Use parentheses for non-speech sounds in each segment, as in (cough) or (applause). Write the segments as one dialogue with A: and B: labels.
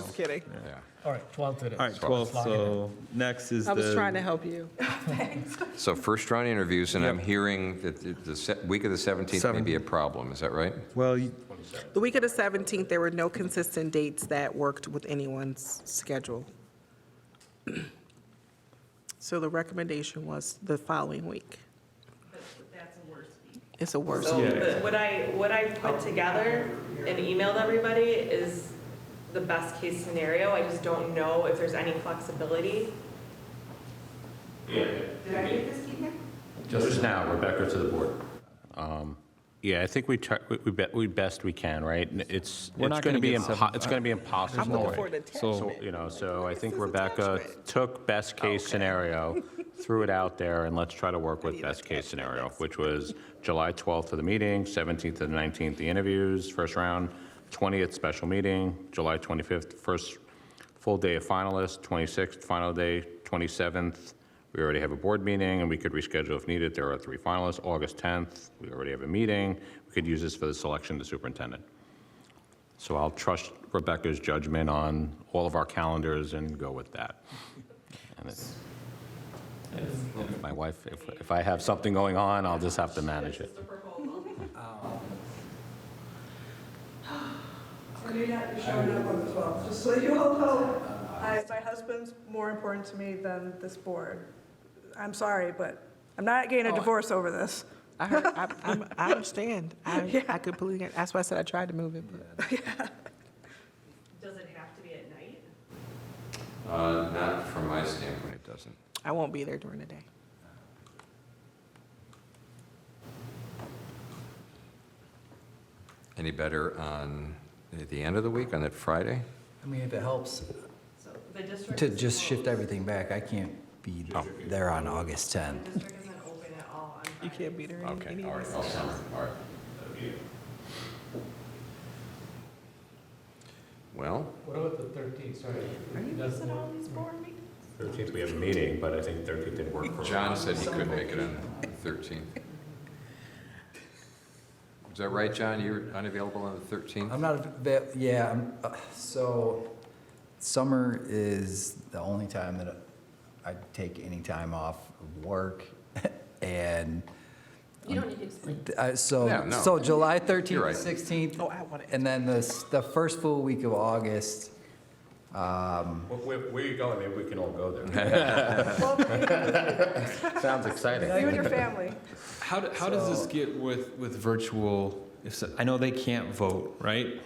A: Just kidding.
B: All right, 12th it is.
C: All right, 12, so next is the.
A: I was trying to help you.
D: So first round interviews, and I'm
C: Yep.
D: hearing that the- the se- week of the 17th may be a problem, is that right?
C: Well, you-
A: The week of the 17th, there were no consistent dates that worked with anyone's schedule. (clears throat) So the recommendation was the following week. That's a worse
E: So
A: week.
E: the- what I, what I put together and emailed everybody is the best case scenario. I just don't know if there's any flexibility.
F: Just now, Rebecca to the board. Um, Yeah, I think we, try- we- we bet- we best we can, right? And It's,
C: We're
F: it's
C: not gonna
F: going to be,
C: get seven-
F: impo- it's going to be impossible.
A: I'm looking for an attachment.
F: So, You know, so I
A: This
F: think
A: is
F: Rebecca
A: attachment.
F: took best case scenario, threw it out there, and let's try to work with best case scenario, which was July 12th for the meeting, 17th to the 19th, the interviews, first round, 20th special meeting, July 25th, first full day of finalists, 26th final day, 27th, we already have a board meeting, and we could reschedule if needed. There are three finalists, August 10th, we already have a meeting. We could use this for the selection of the superintendent. So I'll trust Rebecca's judgment on all of our calendars and go with that. And it's- if My wife, if, if I have something going on, I'll just have to manage it.
G: Or you're not showing up on the 12th, just so you all know. I- My husband's more important to me than this board. I'm sorry, but I'm not getting a divorce over this.
A: I heard, I, I'm- I understand. (laughs) I, I completely, get- that's why I said I tried to move it. but-
E: Does it have to be at night?
D: Uh, Not from my standpoint, it doesn't.
A: I won't be there during the day.
D: Any better on the end of the week, on that Friday?
H: I mean, if it helps
E: So the district.
H: to just shift everything back, I can't be there on August 10th.
E: District isn't open at all on
A: You can't be there any-
D: Okay, all
A: anyway.
D: right, all summer, all right. Well,
B: What about the 13th, sorry? That's the-
F: Thirteenth, we have a meeting, but I think thirteenth didn't work for
D: John said he couldn't make it on the 13th. Is that right, John? You're unavailable on the 13th?
H: I'm not, avai- yeah, I'm, uh, so summer is the only time that I take any time off of work (laughs) and. You don't need to explain.
D: No,
H: So,
D: no.
H: so July
D: You're
H: 13th,
D: right.
H: 16th.
A: Oh, I want it.
H: And then the, s- the first full week of August, um,
F: Where, where you going? Maybe we can all (laughs) go there. Sounds exciting.
G: You and your family.
C: How, do- how does this get with, with virtual? if so- I know they can't vote, right?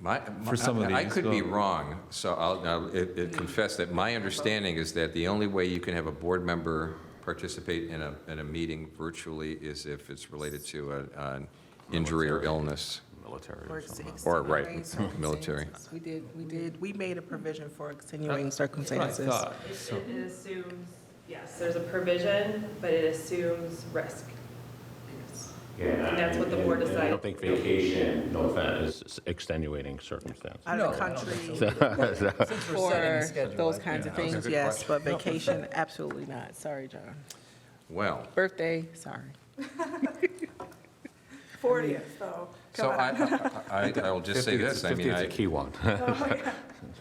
D: My,
C: For some of
D: I I
C: these,
D: could be
C: well-
D: wrong, so I'll, I'll it- it confess that my understanding is that the only way you can have a board member participate in a, in a meeting virtually is if it's related to a- an
C: Oh,
D: injury or illness.
F: Military.
A: For
D: Or, right,
A: extenuating
D: m- (laughs) military.
A: circumstances. We did, we did, we made a provision for extenuating
C: That's what I
A: circumstances.
C: thought.
E: It
C: So-
E: it assumes, yes, there's a provision, but it assumes risk. And that's what the board
F: I
E: decided.
F: don't think vacation, no offense, is extenuating circumstance. (laughs)
A: Out of the country
H: setting the
A: for
H: schedule,
A: those
H: I
A: kinds of things,
D: Good
A: yes, but vacation, absolutely not. Sorry, John.
D: Well,
A: Birthday, sorry.
G: 40th, though.
D: so I, I, I- I will just say this, I mean, I,
F: Fifteenth's a key one.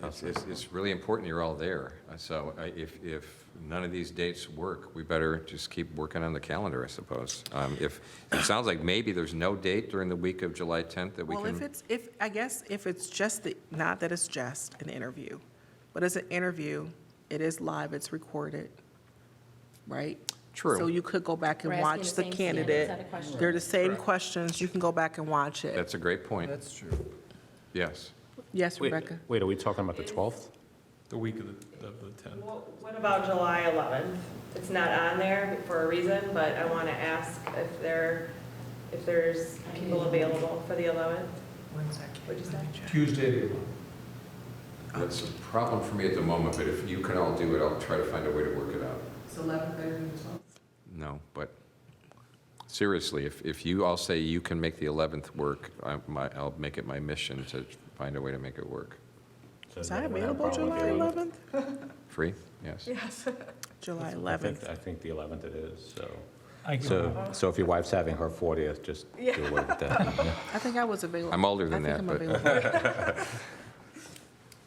D: it's, it's- it's really important you're all there. Uh, So I- if, if none of these dates work, we better just keep working on the calendar, I suppose. Um, If, it sounds like maybe there's no date during the week of July 10th that we can.
A: Well, if it's, if, I guess if it's just the, not that it's just an interview, but it's an interview, it is live, it's recorded, right?
D: True.
A: So you could go back
I: We're
A: and
I: asking
A: watch
I: the
A: the
I: same candidate
A: candidate.
I: set of questions.
A: They're the same questions, you can go back and watch it.
D: That's a great point.
H: that's true.
D: Yes.
A: Yes,
F: Wait,
A: Rebecca?
F: (laughs) Wait, are we talking about the 12th?
C: The week of the, of the 10th.
E: What what about July 11th? It's not on there for a reason, but I want to ask if there, if there's people available for the 11th.
A: One second.
E: What'd you say?
B: Tuesday,
D: That's a problem for me at the moment, but if you can all do it, I'll try to find a way to work it out.
A: It's 11 better than 12?
D: No, but seriously, if, if you all say you can make the 11th work, I, my, I'll make it my mission to find a way to make it work.
A: Is that available July 11th?
D: Free? Yes.
A: July
F: I think,
A: 11th.
F: I think the 11th it is, so.
B: I can-
F: So, so if your wife's having her 40th, just do away with that.
A: (laughs) I think I was available.
D: I'm older than
A: I think
D: that,
A: I'm available.